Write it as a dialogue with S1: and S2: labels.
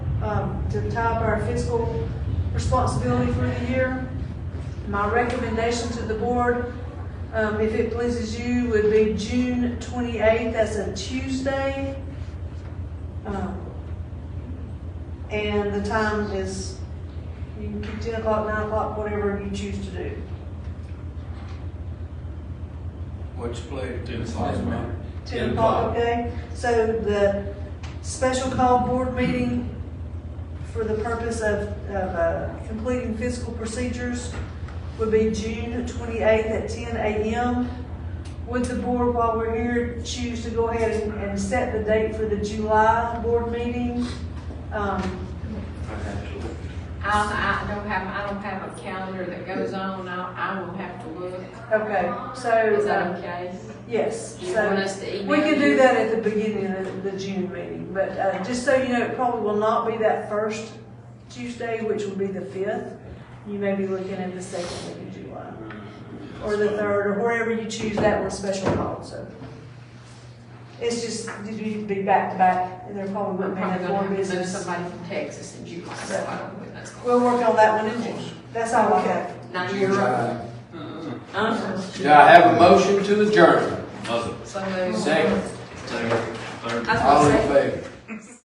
S1: um, to top our fiscal responsibility for the year. My recommendation to the board, um, if it pleases you, would be June twenty-eighth, that's a Tuesday. Um, And the time is, you can keep ten o'clock, nine o'clock, whatever you choose to do.
S2: What's your pleasure?
S3: Ten o'clock, ma'am.
S1: Ten o'clock, okay? So the special call board meeting for the purpose of, of uh, completing fiscal procedures would be June twenty-eighth at ten AM. Would the board, while we're here, choose to go ahead and, and set the date for the July board meeting? Um,
S4: I'll, I don't have, I don't have a calendar that goes on, I, I will have to look,
S1: Okay, so.
S4: is
S1: uh,
S4: that okay?
S1: Yes,
S4: You want
S1: so
S4: us to email?
S1: we can do
S4: you?
S1: that at the beginning of the June meeting, but uh, just so you know, it probably will not be that first Tuesday, which will be the fifth. You may be looking at the second week of July, or the third, or wherever you choose that one special call, so. It's just, did you be back to back, and there probably
S4: I'm
S1: wouldn't be
S4: probably
S1: enough
S4: gonna
S1: more
S4: have to move
S1: business.
S4: somebody from Texas in July, so I don't know when that's going.
S1: We'll work on that one in June, that's all I have.
S4: Not your,
S2: July.
S4: uh,
S2: Do I have a motion to adjourn?
S3: Mother.
S4: so.
S2: Second.
S3: Second. Third.
S4: I was
S2: All
S4: gonna
S2: in
S4: say,
S2: favor?